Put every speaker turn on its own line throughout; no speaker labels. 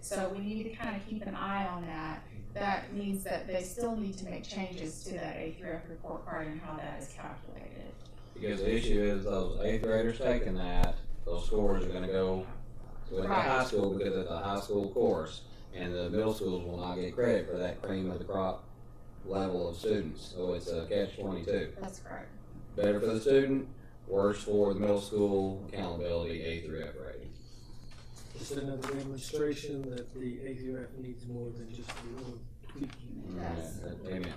So we need to kind of keep an eye on that. That means that they still need to make changes to that A three F report card and how that is calculated.
Because the issue is those eighth graders taking that, those scores are gonna go with the
Right.
high school because it's a high school course. And the middle schools will not get credit for that cream of the crop level of students. So it's a catch twenty-two.
That's correct.
Better for the student, worse for the middle school accountability A through F rating.
It's another demonstration that the AVRF needs more than just a little tweaking.
Yes.
Yeah, Amen.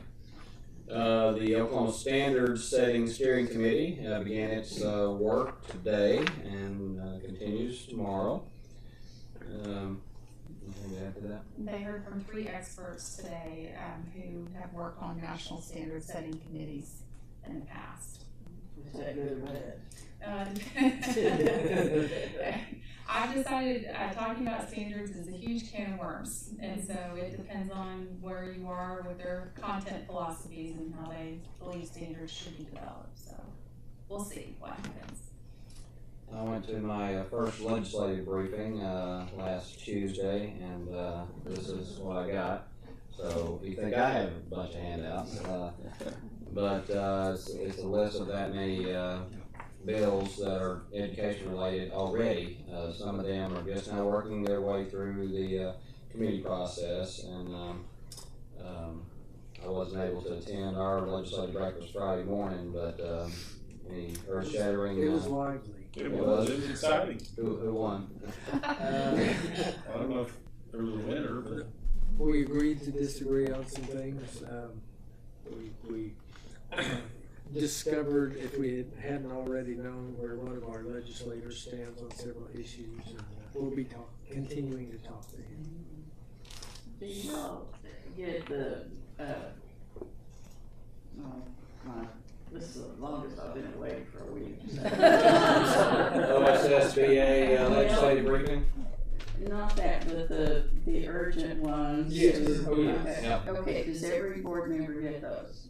Uh, the Oklahoma Standard Setting Steering Committee uh, began its uh, work today and uh, continues tomorrow. Um, anything to add to that?
They heard from three experts today, um, who have worked on national standard setting committees in the past.
Is that good or bad?
Um, I've decided uh, talking about standards is a huge can of worms, and so it depends on where you are with their content philosophies and how they believe standards should be developed. So we'll see what happens.
I went to my uh, first legislative briefing uh, last Tuesday, and uh, this is what I got. So you think I have a bunch of handouts, uh, but uh, it's, it's a list of that many uh, bills that are education related already. Uh, some of them are just now working their way through the uh, committee process, and um, um, I wasn't able to attend our legislative breakfast Friday morning, but um, any uh, earth shattering.
It was lively.
It was, it was exciting.
Who, who won?
Uh,
I don't know if there was a winner, but
We agreed to disagree on some things. Um, we, we discovered, if we had- hadn't already known, where one of our legislators stands on several issues. and uh, We'll be talk, continuing to talk to him.
Do you know, get the, uh, oh, my, this is the longest I've been away for a week.
Oh, OSSBA uh,
Well,
legislative briefing?
Not that, but the, the urgent ones.
Yes.
Oh, yes.
Okay.
Yeah.
Okay, does every board member get those?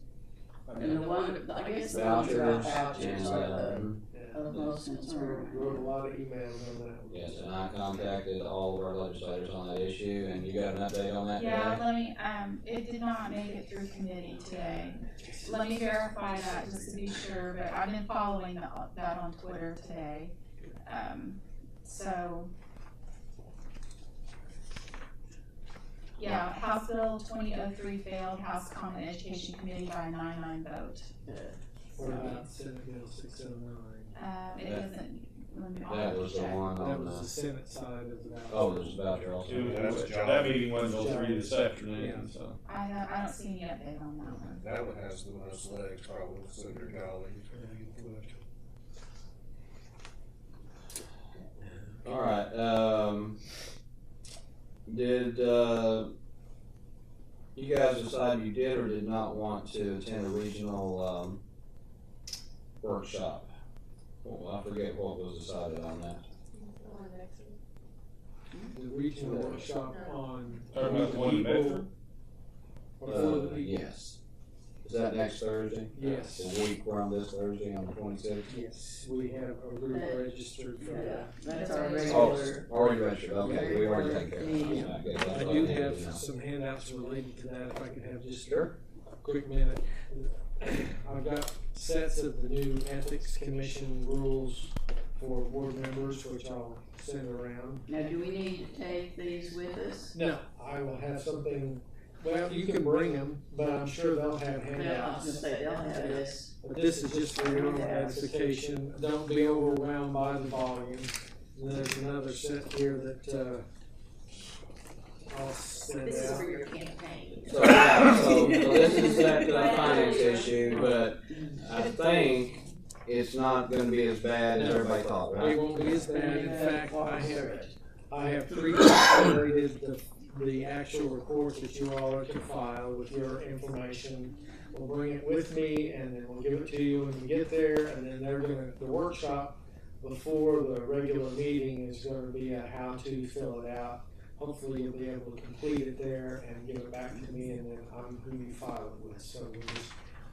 I
And
mean,
the one, I guess the ones about
Vouchers and,
vouchers are
uh,
the, of most concern.
Wrote a lot of emails on that.
yes, and I contacted all of our legislators on that issue, and you got an update on that
Yeah,
today?
let me, um, it did not make it through committee today. Let me verify that just to be sure, but I've been following the- that on Twitter today. Um, so. Yeah, House Bill twenty oh three failed House Common Education Committee by a nine nine vote.
What about Senate Bill six oh nine?
Um, it
That-
doesn't. let me- I'll
That was the
check.
one
That
on
was the
the,
Senate side of the ballot.
uh, oh, there's voucher also.
two- that was- That meeting went until three this afternoon, so.
I don't, I don't see any update on that one.
That one has the most legs, probably, Senator Dolly.
All right, um, did, uh, you guys decide you did or did not want to attend a regional, um, workshop? Well, I forget what was decided on that.
The regional workshop on.
Talking about the one in Bedford?
For
Uh,
the people,
yes. Is that next Thursday?
Yes.
The week from this Thursday on the twenty-sixth?
yes, we have a group
Uh,
registered for
Yeah,
that.
that's our regular.
Oh, already registered, okay, we already taken care
Yeah.
of that.
I do have some handouts related to that, if I could have just a quick minute. I've got sets of the new ethics commission rules for board members, which I'll send around.
Now, do we need to take these with us?
No, I will have something, well, you can bring them, but I'm sure they'll have
No, I was gonna
handouts.
say, they'll have this.
But this is just for your own edification, don't be overwhelmed by the volume. There's another set here that, uh, I'll send
This is
out.
for your campaign.
So, yeah, so, so this is that uh, finance issue, but I think it's not gonna be as bad as everybody thought,
It
right?
won't be as bad, in
Yeah,
fact,
walk
I
us
have,
through it.
I have pre-generated the, the actual report that you all are to file with your information. We'll bring it with me and then we'll give it to you when we get there and then they're gonna, the workshop before the regular meeting is gonna be a how to fill it out. Hopefully you'll be able to complete it there and give it back to me and then I'm who you file it with, so we'll just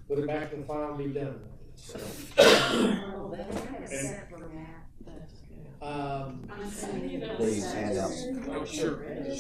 put it back in the file and be done with it, so.
Oh, they have a separate map.
That's good.
Um,
I'm sending you
Please,
those.
hand out.
oh, sure.